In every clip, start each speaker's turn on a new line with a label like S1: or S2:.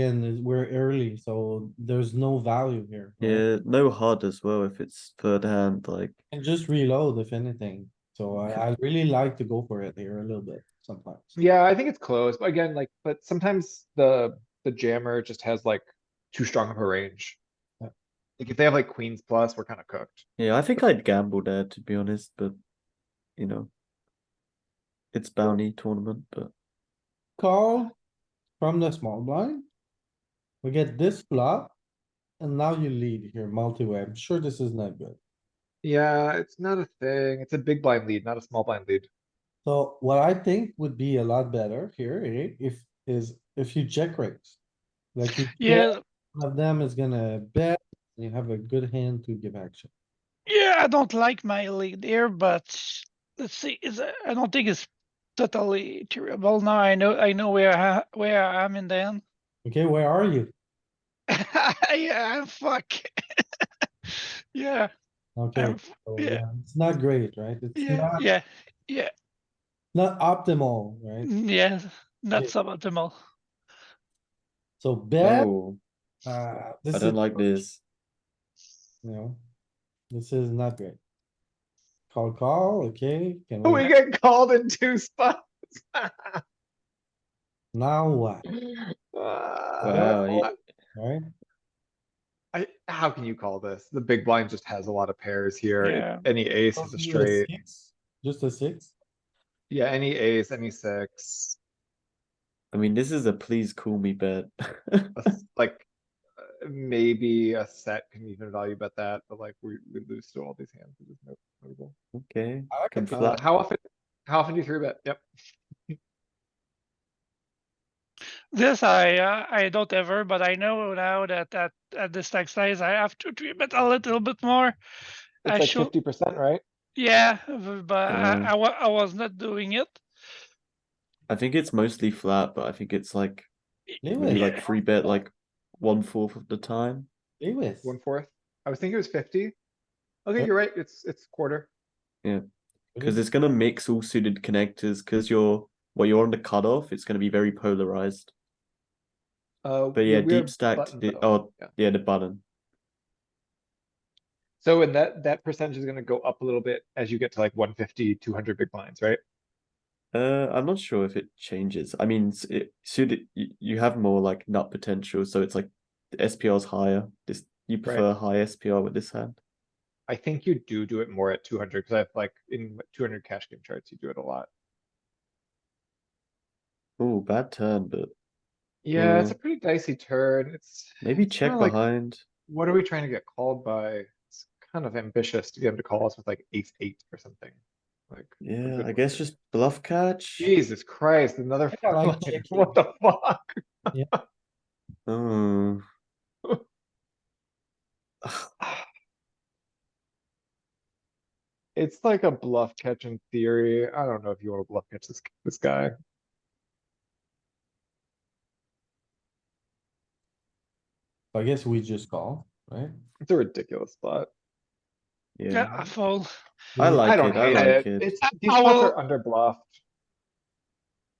S1: Ken, we're early, so there's no value here. right?
S2: Yeah, no HUD as well if it's third hand, like,
S1: And just reload if anything, so I, I really like to go for it here a little bit sometimes.
S3: Yeah, I think it's close, but again, like, but sometimes the, the jammer just has like too strong of a range.
S1: Yeah.
S3: Like if they have like queens plus, we're kinda cooked.
S2: yeah, I think I'd gamble there to be honest, but you know. It's bounty tournament, but
S1: Call from the small blind. We get this flop. And now you lead here multi-way. I'm sure this is not good.
S3: Yeah, it's not a thing. It's a big blind lead, not a small blind lead.
S1: So what I think would be a lot better here, eh, if, is if you check raise. Like you.
S4: Yeah,
S1: One of them is gonna bet, and you have a good hand to give action.
S4: yeah, I don't like my lead here, but let's see. Is I don't think it's totally terrible. Now I know I know where I, where I am in the end.
S1: Okay, where are you?
S4: yeah, I'm fuck. yeah,
S1: Okay,
S4: I'm f-
S1: so,
S4: yeah.
S1: yeah, it's not great, right? It's
S4: yeah,
S1: not,
S4: yeah,
S1: not optimal, right?
S4: yeah. Not
S1: Yeah.
S4: suboptimal.
S1: So bet,
S2: oh,
S1: uh,
S2: I
S1: this is,
S2: don't like
S1: you
S2: this.
S1: know, this is not great. Call, call, okay, can
S4: Oh,
S3: We
S1: we,
S3: get called in two spots.
S1: now what,
S2: Wow,
S3: Uh,
S2: yeah.
S1: right?
S3: I, how can you call this? The big blind just has a lot of pairs here.
S4: Yeah.
S3: Any ace is a straight.
S1: six? Just a six?
S3: Yeah, any ace, any six,
S2: I mean, this is a please call me bet.
S3: a s- like uh, maybe a set can even value bet that, but like we, we lose to all these hands. which is no- notable.
S2: okay,
S1: I like
S2: can
S1: it.
S3: Uh,
S2: flat.
S3: How often, how often do you three bet? Yep.
S4: This I uh, I don't ever, but I know now that at at this stack size I have to three bet a little bit more. I
S3: It's like
S4: should,
S3: fifty percent, right?
S4: yeah, v- but
S2: Yeah.
S4: I, I, wa- I was not doing it.
S2: I think it's mostly flat, but I think it's like
S1: Leave
S2: maybe
S1: it,
S2: like free bet like one fourth of the time.
S1: leave it.
S3: One fourth. I was thinking it was fifty. Okay,
S1: Yep.
S3: you're right. It's, it's quarter.
S2: Because it's gonna mix all suited connectors, because you're well, you're on the cutoff, it's gonna be very polarized.
S3: Uh,
S2: But
S3: we-
S2: yeah,
S3: we're
S2: deep stacked.
S3: button
S2: the-
S3: though.
S2: Oh,
S3: Yeah.
S2: yeah, the button.
S3: So and that, that percentage is gonna go up a little bit as you get to like 150, 200 big blinds, right?
S2: Uh, I'm not sure if it changes. I mean, s- it suited you, you have more like nut potential, so it's like the SPR is higher. This you prefer high SPR with this hand.
S3: I think you do do it more at two hundred, cuz I've like in two hundred cash game charts, you do it a lot.
S2: Oh, bad turn, but
S3: Yeah, it's
S2: Yeah.
S3: a pretty dicey turn. It's,
S2: maybe
S3: It's
S2: check
S3: kinda like-
S2: behind.
S3: what are we trying to get called by? It's kind of ambitious to get him to call us with like ace eight or something. Like, a
S2: Yeah,
S3: good
S2: I
S3: one
S2: guess
S3: here.
S2: just bluff catch.
S3: Jesus Christ, another,
S1: I like
S3: fucking-
S1: checking.
S3: what the fuck?
S2: Oh.
S3: It's like a bluff catch in theory. I don't know if you wanna bluff catch this, this guy.
S1: I guess we just call, right?
S3: It's a ridiculous spot.
S4: Yeah,
S2: Yeah,
S4: I fall.
S2: I like
S3: I don't
S2: it. I
S3: hate
S2: like
S3: it.
S2: it.
S3: It's, these
S4: I
S3: spots
S4: will-
S3: are under bluffed.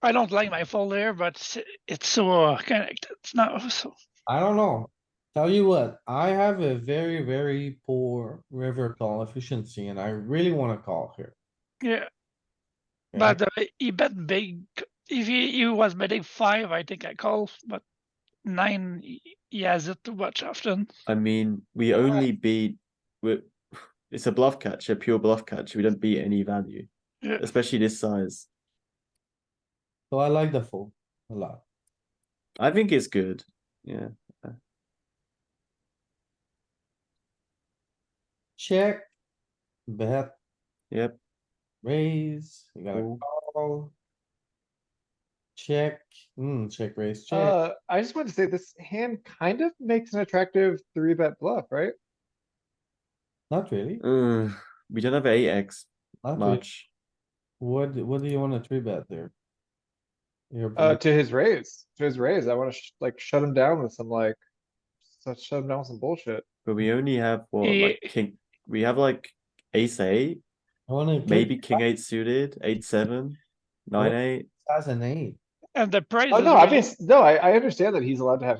S4: I don't like my fall there, but s- it's so uh, connected now. So
S1: I don't know. Tell you what, I have a very, very poor river call efficiency and I really wanna call here.
S4: yeah,
S1: okay?
S4: but uh, he bet big. If he, he was betting five, I think I call, but nine he- he has it too much often.
S2: I mean, we only beat. we- It's a bluff catch, a pure bluff catch. We don't beat any value,
S4: Yeah.
S2: especially this size.
S1: So I like the fold a lot.
S2: I think it's good. Yeah.
S1: Check, bet,
S2: Yep.
S1: raise, you gotta
S2: Cool.
S1: call. Check, hmm, check, raise, check.
S3: Uh, I just wanted to say this hand kind of makes an attractive three bet bluff, right?
S1: Not really,
S2: Uh, we don't have eight X
S1: not really.
S2: much.
S1: What, what do you wanna three bet there? Your
S2: Mm-hmm.
S3: Uh,
S1: bluff.
S3: to his raise, to his raise. I wanna sh- like shut him down with some like, so- shut him down with some bullshit.
S2: But we only have what
S4: Yeah.
S2: like king. We have like ace eight,
S1: I wanna. click
S2: maybe king eight suited, eight seven, nine eight.
S1: As an eight.
S4: And the price.
S3: Oh,
S4: is
S3: no, I
S4: really-
S3: mean, no, I, I understand that he's allowed to have